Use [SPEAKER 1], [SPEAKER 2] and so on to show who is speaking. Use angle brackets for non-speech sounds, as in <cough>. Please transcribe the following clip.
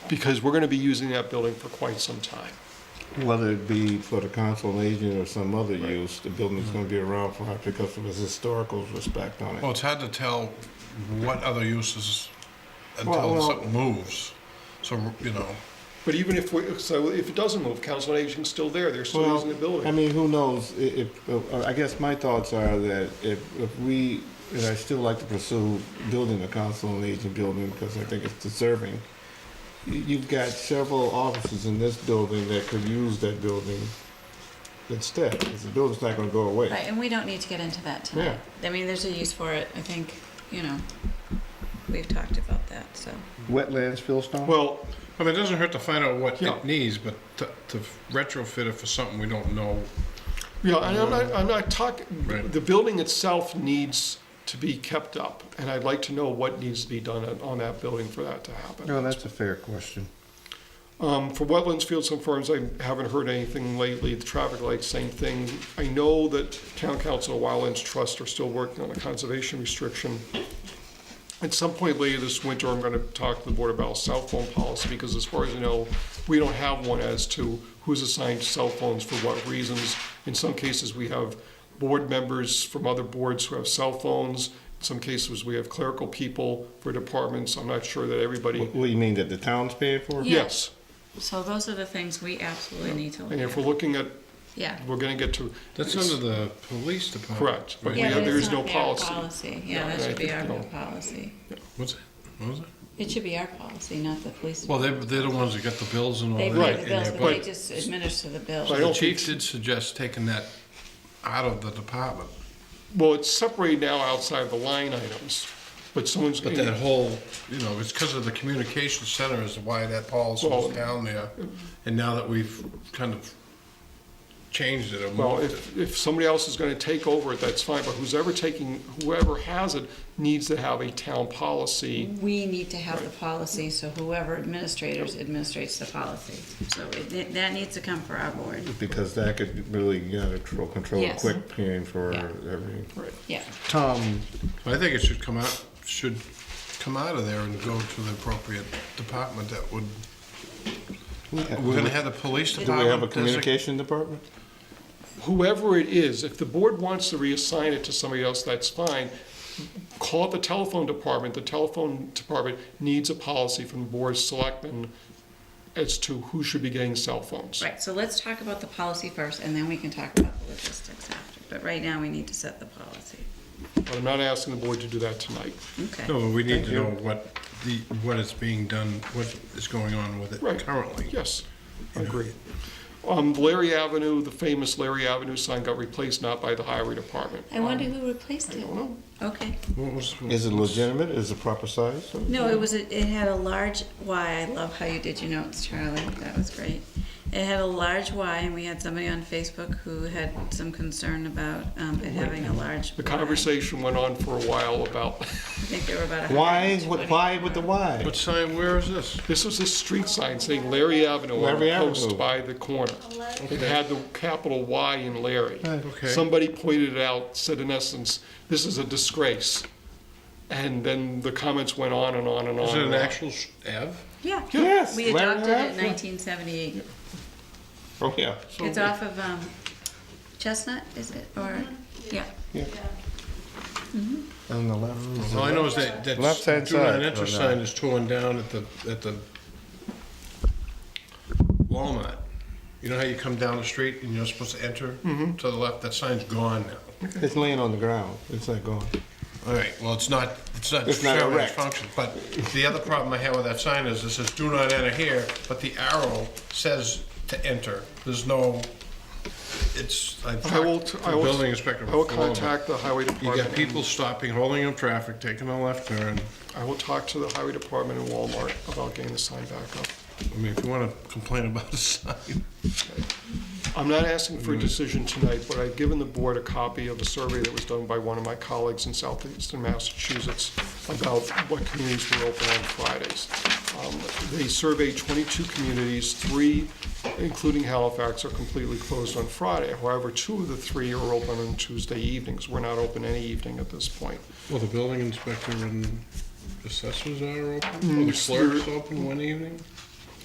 [SPEAKER 1] because we're going to be using that building for quite some time.
[SPEAKER 2] Whether it be for the council on aging or some other use, the building's gonna be around for, because of its historical respect on
[SPEAKER 3] Well,
[SPEAKER 2] it.
[SPEAKER 3] Oh, it's hard to tell what other uses
[SPEAKER 2] Well,
[SPEAKER 3] until
[SPEAKER 2] well-
[SPEAKER 3] something moves. So, you know,
[SPEAKER 1] But even if we, so if it doesn't move, council on aging's still there, they're still using the
[SPEAKER 2] Well,
[SPEAKER 1] building.
[SPEAKER 2] I mean, who knows, i- if, uh, I guess my thoughts are that if, if we, and I still like to pursue building a council on aging building, because I think it's deserving. You- You've got several offices in this building that could use that building instead, 'cause the building's not gonna go away.
[SPEAKER 4] Right, and we don't need to get into that tonight. I mean, there's a use for it, I think, you know, we've talked about that, so.
[SPEAKER 2] Wetlands, Philstone?
[SPEAKER 1] Well,
[SPEAKER 3] I mean, it doesn't hurt to find out what
[SPEAKER 1] Yeah.
[SPEAKER 3] it needs, but to to retrofit it for something we don't know.
[SPEAKER 1] Yeah, and I'm not, I'm not talking,
[SPEAKER 3] Right.
[SPEAKER 1] the building itself needs to be kept up, and I'd like to know what needs to be done on- on that building for that to happen.
[SPEAKER 2] No, that's a fair question.
[SPEAKER 1] Um, for wetlands, fields, and farms, I haven't heard anything lately, the traffic lights, same thing. I know that Town Council and Wildlands Trust are still working on a conservation restriction. At some point later this winter, I'm gonna talk to the board about cell phone policy, because as far as I know, we don't have one as to who's assigned cell phones for what reasons. In some cases, we have board members from other boards who have cell phones. In some cases, we have clerical people for departments, I'm not sure that everybody,
[SPEAKER 2] What, what do you mean, that the town's paying for? it?
[SPEAKER 4] Yeah.
[SPEAKER 1] yes.
[SPEAKER 4] So those are the things we absolutely need to look
[SPEAKER 1] And if we're
[SPEAKER 4] at.
[SPEAKER 1] looking at,
[SPEAKER 4] Yeah.
[SPEAKER 1] we're gonna get to.
[SPEAKER 3] That's under the police department.
[SPEAKER 1] Correct, but we
[SPEAKER 4] Yeah,
[SPEAKER 1] have-
[SPEAKER 4] but
[SPEAKER 1] there
[SPEAKER 4] it's
[SPEAKER 1] is no
[SPEAKER 4] not their
[SPEAKER 1] policy.
[SPEAKER 4] policy, yeah,
[SPEAKER 1] Yeah,
[SPEAKER 4] that should
[SPEAKER 1] I
[SPEAKER 4] be
[SPEAKER 1] think,
[SPEAKER 4] our
[SPEAKER 1] no.
[SPEAKER 4] policy.
[SPEAKER 3] What's it? What was it?
[SPEAKER 4] It should be our policy, not the police.
[SPEAKER 3] Well, they're, they're the ones that get the bills and all
[SPEAKER 4] They
[SPEAKER 3] that.
[SPEAKER 4] pay
[SPEAKER 1] Right,
[SPEAKER 4] the
[SPEAKER 3] and
[SPEAKER 4] bills,
[SPEAKER 3] they're-
[SPEAKER 4] but they
[SPEAKER 1] but-
[SPEAKER 4] just administer the
[SPEAKER 1] But I
[SPEAKER 4] bills.
[SPEAKER 1] don't
[SPEAKER 3] The chief
[SPEAKER 1] think-
[SPEAKER 3] did suggest taking that out of the department,
[SPEAKER 1] Well, it's separated now outside the line items, but someone's.
[SPEAKER 3] but that whole, you know, it's because of the communication center is why that policy
[SPEAKER 1] Well-
[SPEAKER 3] was down there. And now that we've kind of changed it or
[SPEAKER 1] Well,
[SPEAKER 3] moved it.
[SPEAKER 1] if, if somebody else is gonna take over it, that's fine, but who's ever taking, whoever has it needs to have a town policy.
[SPEAKER 4] We need to have the policy, so whoever administrators administrates the policy. So it, that needs to come for our board,
[SPEAKER 2] Because that could really, you know, control, control
[SPEAKER 4] Yes.
[SPEAKER 2] quick pain for
[SPEAKER 4] Yeah.
[SPEAKER 2] every.
[SPEAKER 1] Right.
[SPEAKER 4] yeah.
[SPEAKER 2] Tom,
[SPEAKER 3] I think it should come out, should come out of there and go to the appropriate department that would, we're gonna have the police
[SPEAKER 2] do Uh, we
[SPEAKER 3] department.
[SPEAKER 2] have a
[SPEAKER 3] desi-
[SPEAKER 2] communication department?
[SPEAKER 1] Whoever it is, if the board wants to reassign it to somebody else, that's fine. Call the telephone department, the telephone department needs a policy from the board of selectmen as to who should be getting cell phones.
[SPEAKER 4] Right, so let's talk about the policy first, and then we can talk about the logistics after. But right now, we need to set the policy.
[SPEAKER 1] But I'm not asking the board to do that tonight.
[SPEAKER 4] Okay.
[SPEAKER 3] No, but we need
[SPEAKER 2] Thank
[SPEAKER 3] to
[SPEAKER 2] you.
[SPEAKER 3] know what the, what is being done, what is going on with
[SPEAKER 1] Right.
[SPEAKER 3] it currently.
[SPEAKER 1] Yes, I agree. Um, Larry Avenue, the famous Larry Avenue sign got replaced not by the highway department. Um,
[SPEAKER 4] I wonder
[SPEAKER 2] um,
[SPEAKER 4] who replaced it?
[SPEAKER 1] know.
[SPEAKER 4] Okay.
[SPEAKER 3] What was-
[SPEAKER 2] Is it legitimate? Is it proper size?
[SPEAKER 4] No, it was, a- it had a large Y. I love how you did your notes, Charlie. That was great. It had a large Y, and we had somebody on Facebook who had some concern about um, it having a large
[SPEAKER 1] The
[SPEAKER 4] Y.
[SPEAKER 1] conversation went on for a while about, <laughs>
[SPEAKER 4] I think there were about a.
[SPEAKER 2] Why,
[SPEAKER 4] hundred and
[SPEAKER 2] what,
[SPEAKER 4] twenty.
[SPEAKER 2] why with the why?
[SPEAKER 3] What sign, where is this?
[SPEAKER 1] this was a street sign saying Larry Avenue on
[SPEAKER 2] Larry
[SPEAKER 1] a post
[SPEAKER 2] Avenue.
[SPEAKER 1] by the corner. It had the capital Y in Larry.
[SPEAKER 3] Okay.
[SPEAKER 1] Somebody pointed it out, said in essence, this is a disgrace. And then the comments went on and on and on.
[SPEAKER 3] Is it an
[SPEAKER 1] and on.
[SPEAKER 3] actual s- Ave?
[SPEAKER 4] Yeah.
[SPEAKER 2] Yes,
[SPEAKER 4] We
[SPEAKER 2] Larry
[SPEAKER 4] adopted it in
[SPEAKER 2] Avenue.
[SPEAKER 4] 1978.
[SPEAKER 2] Oh, yeah.
[SPEAKER 4] It's off of um, Chestnut, is it? Or,
[SPEAKER 2] Mm-hmm.
[SPEAKER 4] yeah.
[SPEAKER 2] On the left.
[SPEAKER 3] All I know is that, that
[SPEAKER 2] Left-hand
[SPEAKER 3] juvenile
[SPEAKER 2] side.
[SPEAKER 3] enter
[SPEAKER 1] Oh,
[SPEAKER 3] sign is torn down at the, at the Walmart. You know how you come down the street and you're supposed to enter
[SPEAKER 1] Mm-hmm.
[SPEAKER 3] to the left? That sign's gone now.
[SPEAKER 2] It's laying on the ground. It's not going.
[SPEAKER 3] All right, well, it's not, it's not
[SPEAKER 2] It's not
[SPEAKER 3] serving its
[SPEAKER 2] erect.
[SPEAKER 3] function. But the other problem I have with that sign is it says do not enter here, but the arrow says to enter. There's no, it's, I've
[SPEAKER 1] I will,
[SPEAKER 3] talked
[SPEAKER 1] t-
[SPEAKER 3] to the
[SPEAKER 1] I will.
[SPEAKER 3] building inspector
[SPEAKER 1] I will
[SPEAKER 3] before, but
[SPEAKER 1] contact the highway
[SPEAKER 3] You
[SPEAKER 1] department.
[SPEAKER 3] got people stopping, holding up traffic, taking a left turn.
[SPEAKER 1] I will talk to the highway department and Walmart about getting the sign back up.
[SPEAKER 3] I mean, if you want to complain about the sign.
[SPEAKER 1] I'm not asking for a decision tonight, but I've given the board a copy of a survey that was done by one of my colleagues in southeastern Massachusetts about what communities were open on Fridays. Um, They surveyed 22 communities, three, including Halifax, are completely closed on Friday. However, two of the three are open on Tuesday evenings. We're not open any evening at this point.
[SPEAKER 3] Well, the building inspector and assessors are open, or the
[SPEAKER 1] Mm,
[SPEAKER 3] clerk's open one evening?